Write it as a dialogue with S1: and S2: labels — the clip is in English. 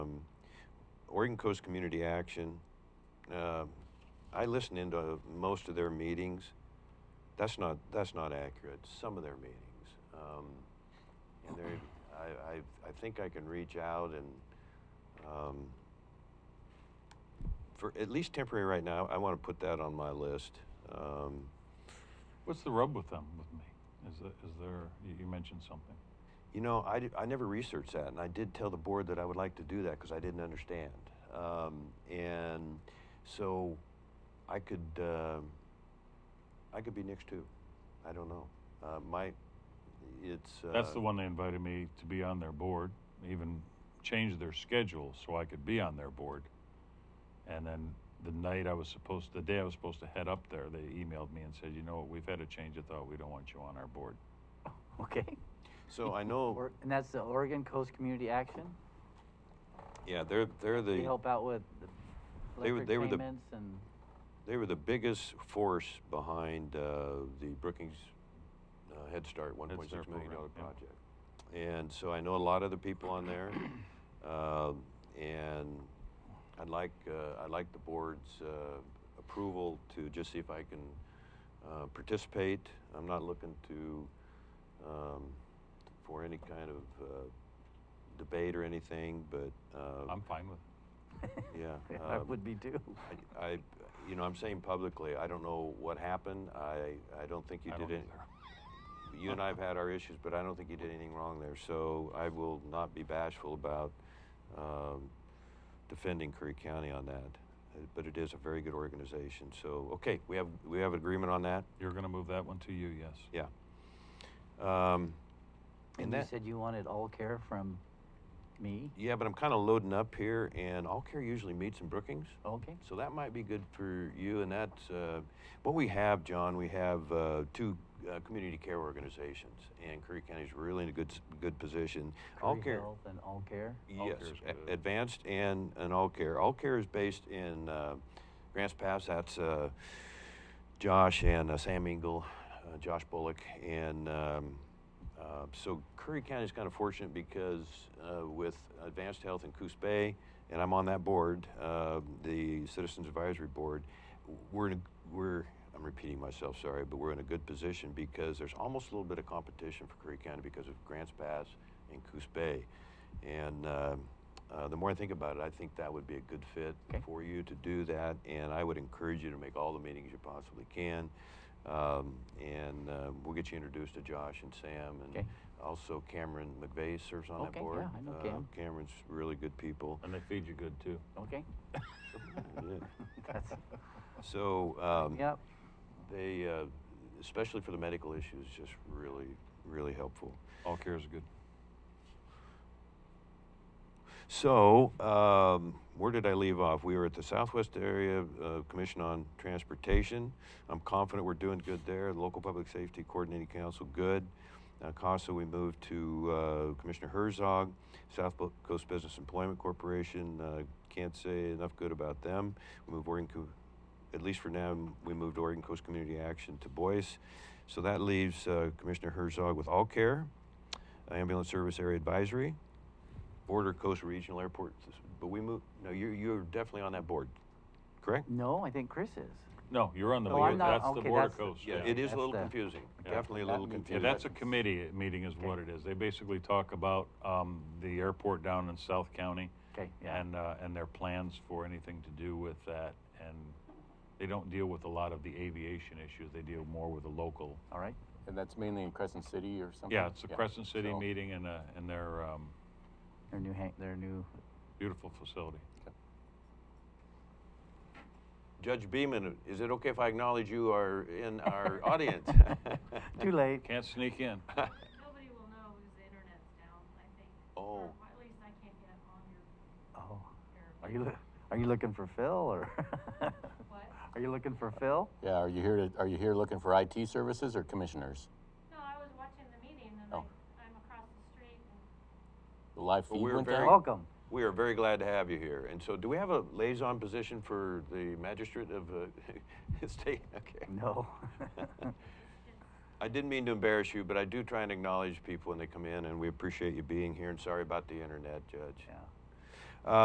S1: um, Oregon Coast Community Action. Uh, I listen into most of their meetings. That's not that's not accurate. Some of their meetings, um, and they're- I, I I think I can reach out and um, for at least temporary right now. I want to put that on my list. Um,
S2: What's the rub with them with me? Is, the, is there, you, you mentioned something.
S1: You know, I, d- I never researched that, and I did tell the board that I would like to do that because I didn't understand. Um, and so I could, uh, I could be next too. I don't know. Uh, my, it's. Uh,
S2: That's the one they invited me to be on their board, They even changed their schedule so I could be on their board. And then the night I was supposed, the day I was supposed to head up there, they emailed me and said, you know what, we've had a change of thought, we don't want you on our board.
S3: Okay.
S1: So I know.
S3: Or- And that's the Oregon Coast Community Action?
S1: Yeah, they're they're
S3: They
S1: the
S3: help out with the
S1: They were-
S3: electric
S1: they were the-
S3: payments and,
S1: they were the biggest force behind uh, the Brookings uh, Head Start 1.6 million
S2: Start
S1: million dollar
S2: program, yeah.
S1: project. And so I know a lot of the people on there, um, and I'd like uh, I'd like the board's uh, approval to just see if I can uh, participate. I'm not looking to um, for any kind of uh, debate or anything, but uh,
S2: I'm fine with it.
S1: yeah,
S3: I
S1: um,
S3: would be too.
S1: I, I- you know, I'm saying publicly, I don't know what happened. I, I don't think you
S2: I
S1: did
S2: don't
S1: it.
S2: either.
S1: You and I have had our issues, but I don't think you did anything wrong there. So I will not be bashful about um, defending Curry County on that. Uh, But it is a very good organization. So okay, we have we have agreement on that.
S2: You're going to move that one to you, yes.
S1: Yeah. Um,
S3: And you
S1: that-
S3: said you wanted all care from me?
S1: yeah, but I'm kind of loading up here, and All Care usually meets in Brookings.
S3: Okay.
S1: So that might be good for you, and that's uh, what we have, John. We have uh, two uh, community care organizations, and Curry County's really in a good s- good position. all
S3: Curry
S1: care,
S3: Health And all care?
S2: All
S1: yes,
S2: Care's
S1: a-
S2: good.
S1: advanced and and all care. All care is based in uh, Grants Pass. That's uh, Josh and uh, Sam Engel, uh, Josh Bullock, and um, uh, so Curry County is kind of fortunate because uh, with Advanced Health in Coos Bay, and I'm on that board, uh, the Citizens Advisory Board. We're in a, we're I'm repeating myself, sorry, but we're in a good position because there's almost a little bit of competition for Curry County because of Grants Pass and Coos Bay, and. um uh, the more I think about it, I think that would be a good fit
S3: Okay.
S1: for you to do that, and I would encourage you to make all the meetings you possibly can. Um, and uh, we'll get you introduced to Josh and Sam, and
S3: Okay.
S1: also Cameron McVeigh serves on that
S3: Okay,
S1: board.
S3: yeah, I know
S1: Uh,
S3: Cam.
S1: Cameron's really good people.
S2: And they feed you good too.
S3: Okay.
S1: Yeah.
S3: That's,
S1: So um,
S3: yep.
S1: they, uh, especially for the medical issues, just really, really helpful.
S2: All care is good.
S1: So, um, where did I leave off? We were at the Southwest Area uh, Commission on Transportation. I'm confident we're doing good there. The Local Public Safety Coordinating Council, good. Uh, CASA, we moved to uh, Commissioner Herzog. South Bo- Coast Business Employment Corporation, uh, can't say enough good about them. We moved Oregon, Co- at least for now, we moved Oregon Coast Community Action to Boyce. So that leaves uh, Commissioner Herzog with All Care, Ambulance Service Area Advisory, Border Coast Regional Airport. But we moved, no, you're, you're definitely on that board, correct?
S3: No, I think Chris is.
S2: No, you're on the
S3: No,
S2: board.
S3: Oh, I'm not-
S2: that's the
S3: okay,
S2: border
S3: that's the-
S2: coast.
S1: Yeah,
S3: Yeah,
S1: it is a
S3: that's
S1: little
S3: the-
S1: confusing.
S2: Yeah.
S1: Definitely a little
S3: That means-
S2: Yeah,
S1: confusing.
S2: that's a committee meeting is what it is. They basically talk about um, the airport down in South County
S3: Okay, yeah.
S2: and, uh, and their plans for anything to do with that. And they don't deal with a lot of the aviation issues. They deal more with the local.
S3: All right.
S4: And that's mainly in Crescent City or something?
S2: Yeah, it's a Crescent City
S4: So-
S2: meeting and, uh, and their um,
S3: Their new, hang- their new,
S2: beautiful facility.
S1: Judge Beeman, is it okay if I acknowledge you are in our audience?
S3: too late.
S2: Can't sneak in.
S5: Nobody will know because the internet's down, I think.
S1: Oh.
S5: Or at least I can't get on your,
S3: Oh,
S5: your,
S3: are you, loo- are you looking for Phil or?
S5: what?
S3: Are you looking for Phil?
S4: Yeah, are you here, to- are you here looking for IT services or commissioners?
S5: No, I was watching the meeting and I,
S4: Oh.
S5: I'm across the street and
S4: The live
S1: Well,
S4: feed
S1: we're
S4: went
S1: very-
S4: down?
S3: Welcome.
S1: We are very glad to have you here. And so, do we have a liaison position for the magistrate of uh, state? Okay.
S3: No.
S1: I didn't mean to embarrass you, but I do try and acknowledge people when they come in, and we appreciate you being here. And sorry about the internet, Judge.
S3: Yeah.